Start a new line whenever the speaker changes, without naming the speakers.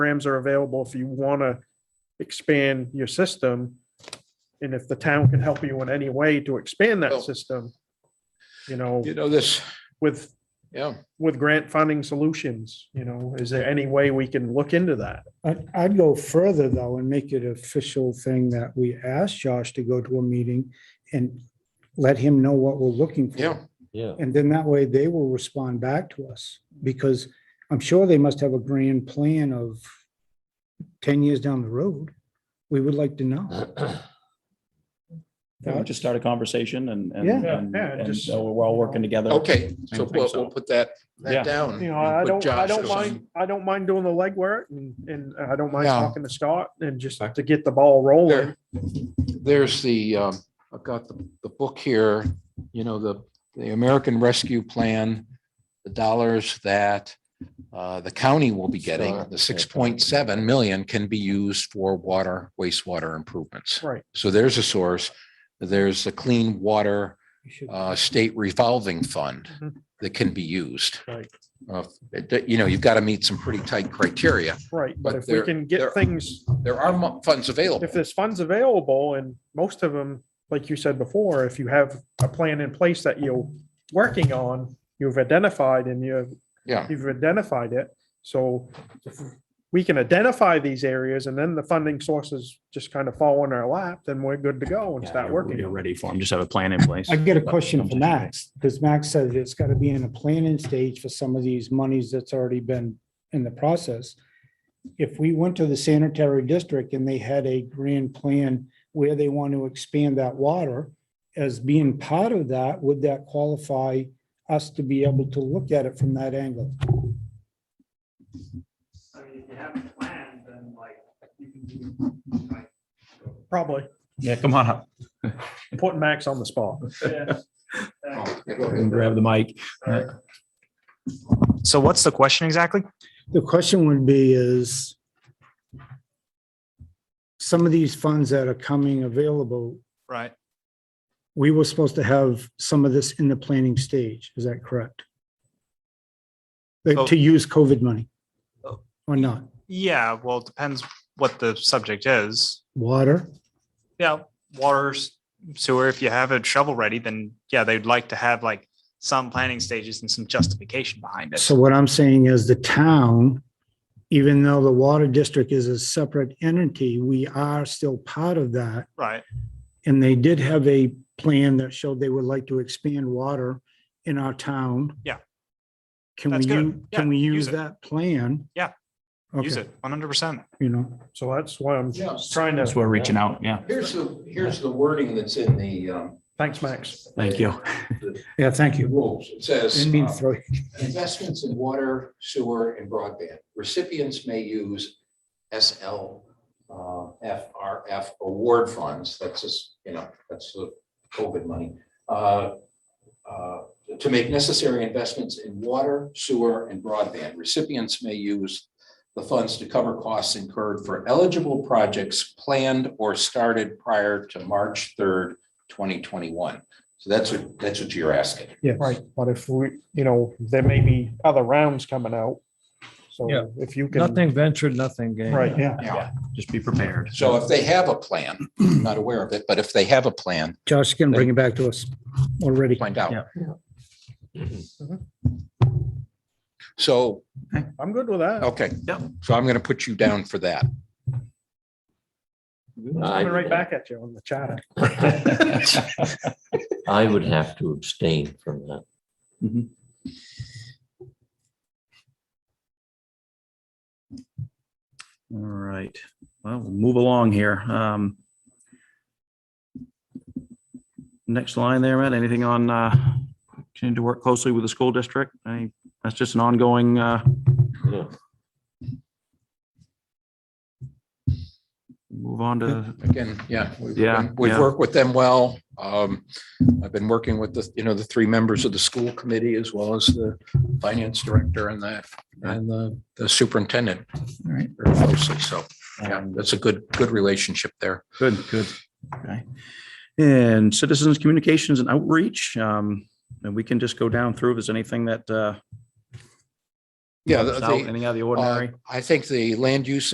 programs are available if you want to expand your system. And if the town can help you in any way to expand
Well-
that system, you know,
You know, this,
with,
yeah,
with grant funding solutions, you know, is there any way we can look into that?
I'd, I'd go further though and make it official thing that we ask Josh to go to a meeting and let him know what we're looking for.
yeah.
Yeah.
And then that way they will respond back to us because I'm sure they must have a grand plan of ten years down the road. We would like to know.
Yeah, we just start a conversation and, and,
Yeah,
and-
yeah,
and
just-
so we're all working together.
Okay, so
I think
we'll, we'll put that,
Yeah.
that down.
You know,
and
I
put
don't, I
Josh
don't
on.
mind, I don't mind doing the legwork and, and I don't mind
Yeah.
talking to Scott and just to get the ball rolling.
There- There's the, um, I've got the, the book here, you know, the, the American Rescue Plan, the dollars that uh, the county will be getting,
Sure.
the six point seven million can be used for water, wastewater improvements.
Right.
So there's a source. There's the Clean Water
We should-
uh, State Revolving Fund
Mhm.
that can be used.
Right.
Uh, it- You know, you've got to meet some pretty tight criteria.
Right, but
But
if we
there-
can get
there-
things,
There are mo- funds available.
if there's funds available and most of them, like you said before, if you have a plan in place that you're working on, you've identified and you've,
Yeah.
you've identified it. So if we can identify these areas and then the funding sources just kind of fall in our lap, then we're good to go and start
You're
working.
ready for them. Just have a plan in place.
I get a question from Max, because Max said it's got to be in a planning stage for some of these monies that's already been in the process. If we went to the sanitary district and they had a grand plan where they want to expand that water, as being part of that, would that qualify us to be able to look at it from that angle?
I mean, if you have a plan, then like, you can do, like,
Probably
Yeah, come on up
putting Max on the spot.
this, that,
and grab the mic.
or-
So what's the question exactly?
The question would be is some of these funds that are coming available,
Right.
we were supposed to have some of this in the planning stage, is that correct? Like, To use COVID money?
Oh.
Or not?
Yeah, well, it depends what the subject is.
Water?
Yeah, water, s- sewer, if you have it shovel ready, then yeah, they'd like to have like some planning stages and some justification behind it.
So what I'm saying is the town, even though the water district is a separate entity, we are still part of that.
Right,
And they did have a plan that showed they would like to expand water in our town.
Yeah.
Can we,
That's good.
u-
Yeah,
can we
use
use
it.
that plan?
Yeah. use
Okay,
it, one hundred percent.
you know,
So that's why I'm
Yeah.
trying
That's
to,
where we're reaching out. Yeah.
Here's the, here's the wording that's in the, um,
thanks, Max.
Thank you.
yeah, thank you.
rules. It says,
Didn't mean to
uh,
throw you.
investments in water, sewer, and broadband. Recipients may use SL, uh, FRF award funds, that's just, you know, that's the COVID money, uh, uh, to make necessary investments in water, sewer, and broadband. Recipients may use the funds to cover costs incurred for eligible projects planned or started prior to March third, twenty twenty-one. So that's what, that's what you're asking.
Yes.
Right, but if we, you know, there may be other rounds coming out.
Yeah.
So if you can,
Nothing ventured, nothing gained.
right,
Yeah,
Just be prepared.
So if they have a plan, I'm not aware of it, but if they have a plan,
Josh can bring it back to us already.
find out.
Yeah.
So,
I'm good with that.
okay.
Yeah.
So I'm going to put you down for that.
I'm
I-
right back at you on the chat.
I would have to abstain from that.
All right, well, we'll move along here. Um, Next line there, Matt, anything on, uh, continue to work closely with the school district? Any, that's just an ongoing, uh,
Yeah.
move on to,
Again, yeah. we've-
Yeah,
We've
yeah.
worked with them well. Um, I've been working with the, you know, the three members of the school committee as well as the finance director and the, and the- the superintendent. Right. Very closely. So, yeah,
Um,
that's a good, good relationship there.
good, good. Okay. And citizens communications and outreach, um, and we can just go down through if there's anything that, uh,
Yeah,
Out,
the-
Anything out of the ordinary?
uh, I think the land use